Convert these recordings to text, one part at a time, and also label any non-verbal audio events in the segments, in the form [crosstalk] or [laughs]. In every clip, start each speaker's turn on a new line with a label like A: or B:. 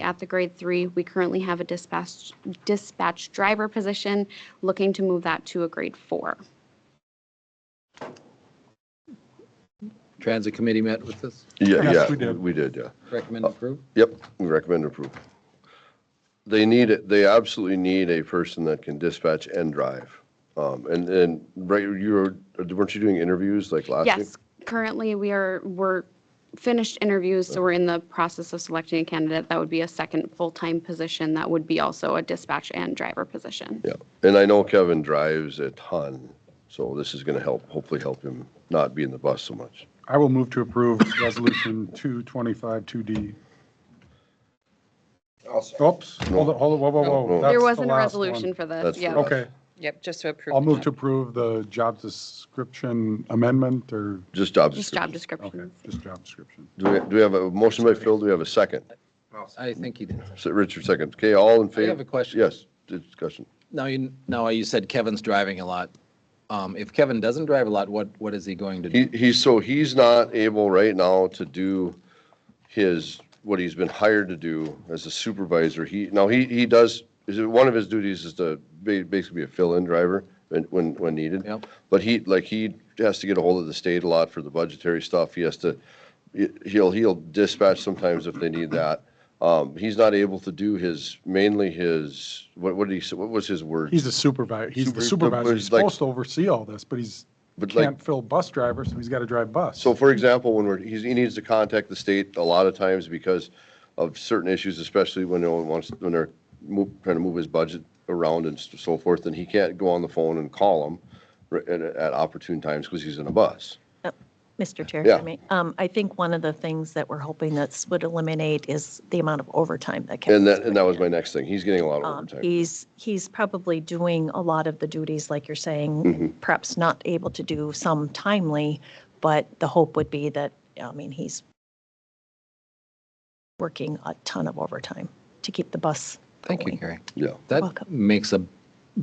A: at the grade three. We currently have a dispatch, dispatch driver position, looking to move that to a grade four.
B: Transit committee met with this,
C: Yeah,
D: Yes,
C: yeah,
D: we did.
C: we did, yeah.
B: recommend approve?
C: Yep, we recommend approval. They need it, they absolutely need a person that can dispatch and drive. Um, and, and, right, you were, weren't you doing interviews like last week?
A: Yes, currently, we are, we're finished interviews, so we're in the process of selecting a candidate. That would be a second full-time position. That would be also a dispatch and driver position.
C: Yeah, and I know Kevin drives a ton, so this is gonna help, hopefully help him not be in the bus so much.
D: I will move to approve [coughs] Resolution 225-2D. Oops, hold on, hold on, whoa, whoa,
C: No, no.
D: whoa. that's
A: There
D: the
A: wasn't a
D: last one.
A: resolution for this,
C: That's the
A: yeah.
C: last-
D: Okay,
E: Yep, just to approve.
D: I'll
E: the
D: move
E: job.
D: to approve the job description amendment or,
C: Just job
A: Just job
C: description.
D: okay,
A: descriptions.
D: just job description.
C: Do we, do we have a motion by Phil? Do we have a second?
B: I think you did.
C: So Richard seconds. Okay, all in favor?
B: have a question.
C: Yes, discussion.
B: Now, you, now you said Kevin's driving a lot. Um, if Kevin doesn't drive a lot, what, what is he going to
C: He,
B: do?
C: he's, so he's not able right now to do his, what he's been hired to do as a supervisor. He, now he, he does, is it, one of his duties is to ba- basically be a fill-in driver when, when, when needed.
B: Yep.
C: But he, like, he has to get a hold of the state a lot for the budgetary stuff. He has to, he- he'll, he'll dispatch sometimes if they need that. Um, he's not able to do his, mainly his, what, what did he, say? what was his word?
D: He's a supervisor, he's the
C: Super- but- but
D: supervisor, he's
C: it's like-
D: supposed to oversee all this, but he's,
C: But like-
D: can't fill bus driver, so he's got to drive bus.
C: So for example, when we're, he's, he needs to contact the state a lot of times because of certain issues, especially when no one wants, when they're move, trying to move his budget around and so forth, and he can't go on the phone and call him ri- at, at opportune times because he's in a bus.
F: Mr. Chair,
C: Yeah.
F: I mean, um, I think one of the things that we're hoping this would eliminate is the amount of overtime that
C: And
F: Kevin's
C: that, and that was my next thing. He's getting a lot of
F: um,
C: overtime.
F: He's, he's probably doing a lot of the duties, like you're
C: Mm-hmm.
F: saying, perhaps not able to do some timely, but the hope would be that, I mean, he's working a ton of overtime to keep the bus
B: Thank you, Gary.
C: Yeah.
B: That
F: Welcome.
B: makes a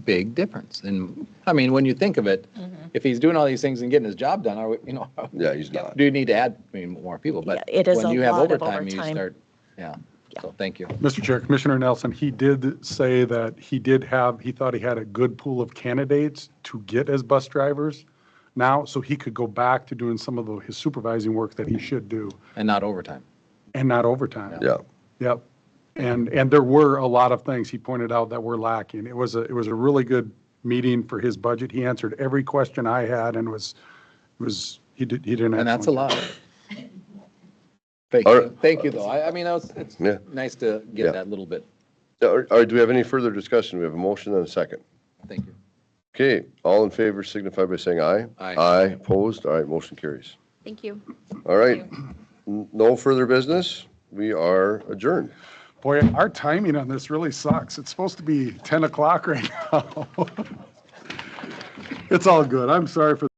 B: big difference. And, I mean, when you think of it,
F: Mm-hmm.
B: if he's doing all these things and getting his job done, are we, you know, [laughs]
C: Yeah, he's not.
B: do you need to add, I mean, more people? But
F: Yeah, it is
B: when
F: a
B: you have
F: lot of
B: overtime, you
F: overtime.
B: start, yeah. So thank you.
D: Mr. Chair, Commissioner Nelson, he did say that he did have, he thought he had a good pool of candidates to get as bus drivers now, so he could go back to doing some of the- his supervising work that he should do
B: And not overtime.
D: and not overtime.
C: Yeah.
D: Yep. And, and there were a lot of things he pointed out that were lacking. It was a, it was a really good meeting for his budget. He answered every question I had and was, was, he did, he did an
B: And that's a
D: excellent job.
B: lot. Thank
C: All
B: you,
C: right.
B: thank you, though. I, I mean, that was- it's
C: Yeah.
B: nice to
C: Yeah.
B: get that little bit.
C: All right, do we have any further discussion? We have a motion and a second.
B: Thank you.
C: Okay, all in favor signify by saying aye.
B: Aye.
C: Aye, opposed, all right, motion carries.
A: Thank you.
C: All right, N- no further business, we are adjourned.
D: Boy, our timing on this really sucks. It's supposed to [laughs] be 10 o'clock right now. It's all good. I'm sorry for